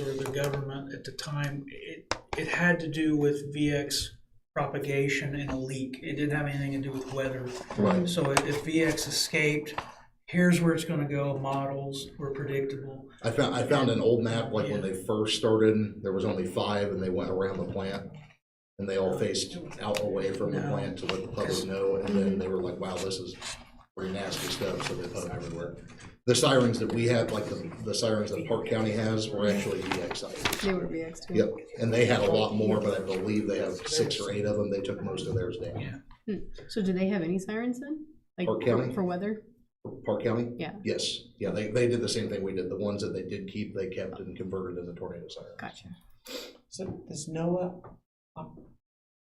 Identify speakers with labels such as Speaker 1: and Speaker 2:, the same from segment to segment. Speaker 1: or the government at the time, it, it had to do with VX propagation and a leak. It didn't have anything to do with weather.
Speaker 2: Right.
Speaker 1: So if if VX escaped, here's where it's gonna go, models were predictable.
Speaker 2: I found I found an old map like when they first started. There was only five, and they went around the plant, and they all faced out away from the
Speaker 1: No.
Speaker 2: plant to let the public know. And then they were like, "Wow, this is pretty nasty stuff." So they put them everywhere. The sirens that we have, like the, the sirens that Park County has, were actually EX sirens.
Speaker 3: They would be extra.
Speaker 2: Yep, and they had a lot more, but I believe they have six or eight of them. They took most of theirs down.
Speaker 3: So do they have any sirens then? Like
Speaker 2: Park
Speaker 3: for-
Speaker 2: County?
Speaker 3: For weather?
Speaker 2: Park County.
Speaker 3: Yeah.
Speaker 2: Yes, yeah, they, they did the same thing we did. The ones that they did keep, they kept and converted into tornado sirens.
Speaker 3: Gotcha.
Speaker 4: So does NOAA um,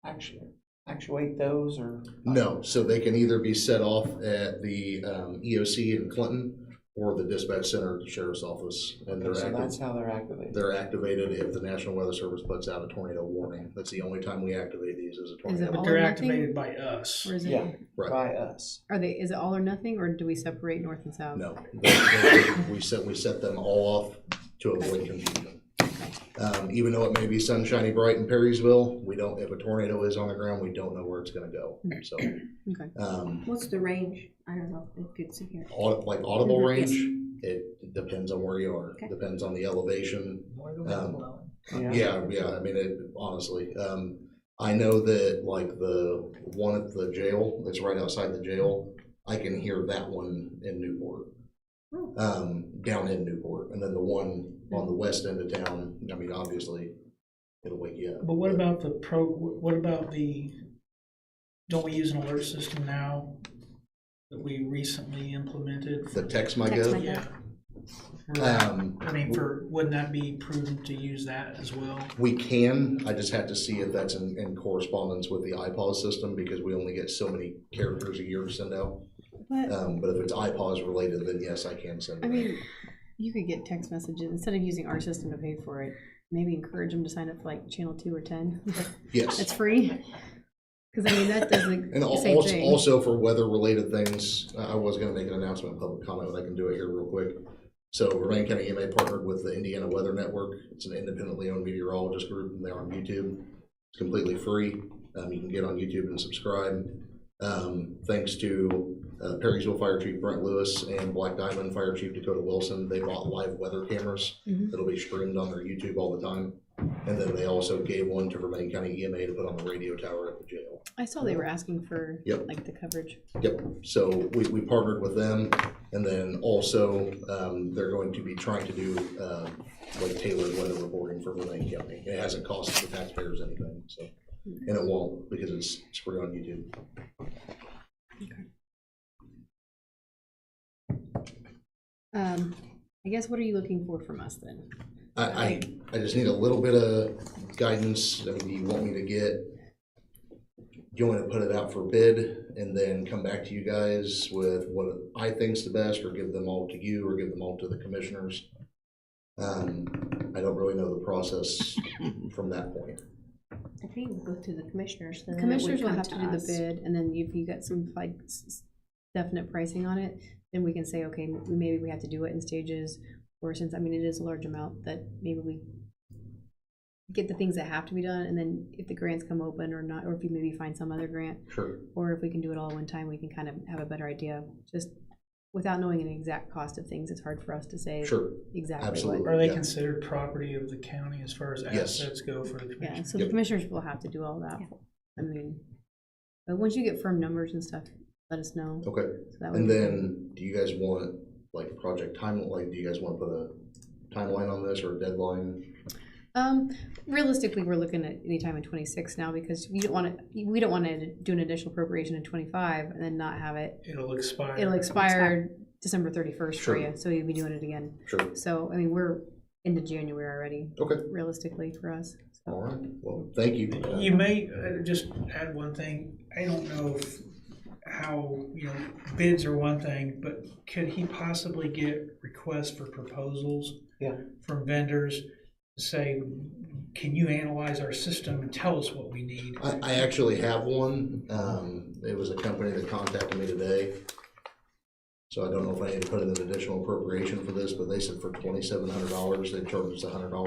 Speaker 4: actu- actuate those or?
Speaker 2: No, so they can either be set off at the um, EOC in Clinton or the dispatch center at the sheriff's office. And
Speaker 4: So
Speaker 2: they're
Speaker 4: that's
Speaker 2: active,
Speaker 4: how they're activated.
Speaker 2: they're activated if the National Weather Service puts out a tornado warning. That's the only time we activate these is a
Speaker 3: it
Speaker 2: tornado.
Speaker 1: But
Speaker 3: all
Speaker 1: they're
Speaker 3: or nothing?
Speaker 1: activated by us.
Speaker 3: Or is
Speaker 4: Yeah,
Speaker 3: it,
Speaker 2: Right.
Speaker 4: by us.
Speaker 3: are they, is it all or nothing or do we separate north and south?
Speaker 2: No, They- they- we set, we set them all off to avoid confusion. Um, even though it may be sunshiny bright in Perrysville, we don't, if a tornado is on the ground, we don't know where it's gonna go,
Speaker 3: Hmm.
Speaker 2: so.
Speaker 3: Okay.
Speaker 2: Um,
Speaker 5: What's the range? I don't know, if it's in here.
Speaker 2: aud- like audible
Speaker 3: Mhm,
Speaker 2: range, it depends on where you are,
Speaker 5: Okay.
Speaker 2: depends on the elevation. Um,
Speaker 4: Yeah.
Speaker 2: yeah, yeah, I mean, it, honestly, um, I know that like the one at the jail, that's right outside the jail, I can hear that one in Newport.
Speaker 5: Hmm.
Speaker 2: Um, down in Newport, and then the one on the west end of town, I mean, obviously, it'll wake you up.
Speaker 1: But what about the pro, what about the, don't we use an alert system now that we recently implemented?
Speaker 2: The text my
Speaker 5: Text
Speaker 2: gov,
Speaker 5: my-
Speaker 1: Yeah.
Speaker 2: um,
Speaker 1: I mean, for, wouldn't that be prudent to use that as well?
Speaker 2: We can, I just have to see if that's in, in correspondence with the iPause system, because we only get so many characters a year to send out.
Speaker 3: But,
Speaker 2: Um, but if it's iPause related, then yes, I can send
Speaker 3: I
Speaker 2: it.
Speaker 3: mean, you could get text messages, instead of using our system to pay for it, maybe encourage them to sign up for like channel two or ten. It's
Speaker 2: Yes.
Speaker 3: free. Cause I mean, that does the
Speaker 2: And al-
Speaker 3: same
Speaker 2: also,
Speaker 3: thing.
Speaker 2: also for weather related things, I I was gonna make an announcement in public comment, but I can do it here real quick. So Remaine County EMA partnered with the Indiana Weather Network. It's an independently owned meteorologist group and they're on YouTube. It's completely free. Um, you can get on YouTube and subscribe. Um, thanks to uh, Perrysville Fire Chief Brent Lewis and Black Diamond Fire Chief Dakota Wilson, they bought live weather cameras
Speaker 3: Mhm.
Speaker 2: that'll be streamed on their YouTube all the time. And then they also gave one to Remaine County EMA to put on the radio tower at the jail.
Speaker 3: I saw they were asking for
Speaker 2: Yep.
Speaker 3: like the coverage.
Speaker 2: Yep, so we, we partnered with them, and then also, um, they're going to be trying to do, uh, like tailored weather reporting for Vermillion County. It hasn't cost the taxpayers anything, so, and it won't, because it's, it's free on YouTube.
Speaker 3: Um, I guess what are you looking for from us then?
Speaker 2: I, I, I just need a little bit of guidance, I mean, do you want me to get, do you want me to put it out for bid, and then come back to you guys with what I think's the best, or give them all to you, or give them all to the commissioners? Um, I don't really know the process from that point.
Speaker 5: I think we go to the commissioners. then
Speaker 3: The
Speaker 5: that
Speaker 3: Commissioners
Speaker 5: would
Speaker 3: will have
Speaker 5: come
Speaker 3: to do the
Speaker 5: us.
Speaker 3: bid, and then if you get some like s- s- definite pricing on it, then we can say, okay, m- maybe we have to do it in stages, or since, I mean, it is a large amount, that maybe we get the things that have to be done, and then if the grants come open or not, or if you maybe find some other grant,
Speaker 2: Sure.
Speaker 3: or if we can do it all one time, we can kind of have a better idea, just without knowing an exact cost of things, it's hard for us to say
Speaker 2: Sure,
Speaker 3: exactly
Speaker 2: absolutely.
Speaker 3: what.
Speaker 1: Are they
Speaker 2: Yeah.
Speaker 1: considered property of the county as far as
Speaker 2: Yes.
Speaker 1: assets go for the
Speaker 3: Yeah,
Speaker 1: commission?
Speaker 3: so the
Speaker 2: Yep.
Speaker 3: commissioners will have to do all that,
Speaker 5: Yeah.
Speaker 3: I mean, but once you get firm numbers and stuff, let us know.
Speaker 2: okay,
Speaker 3: So that would
Speaker 2: and
Speaker 3: be-
Speaker 2: then, do you guys want, like, project timeline, like, do you guys wanna put a timeline on this, or a deadline?
Speaker 3: Um, realistically, we're looking at any time in twenty-six now because we don't want to, we don't want to do an additional appropriation in twenty-five and then not have it.
Speaker 1: It'll expire.
Speaker 3: It'll expire December thirty-first
Speaker 2: Sure.
Speaker 3: for you, so you'll be doing it again.
Speaker 2: Sure,
Speaker 3: So, I mean, we're into January already,
Speaker 2: okay,
Speaker 3: realistically for us.
Speaker 2: all right, well, thank you. Uh,
Speaker 1: You may, uh, just add one thing, I don't know if, how, you know, bids are one thing, but could he possibly get requests for proposals?
Speaker 4: Yeah.
Speaker 1: From vendors, to say, can you analyze our system and tell us what we need?
Speaker 2: I, I actually have one. Um, it was a company that contacted me today. So I don't know if I need to put in an additional appropriation for this, but they said for twenty-seven hundred dollars, they charged us a hundred dollars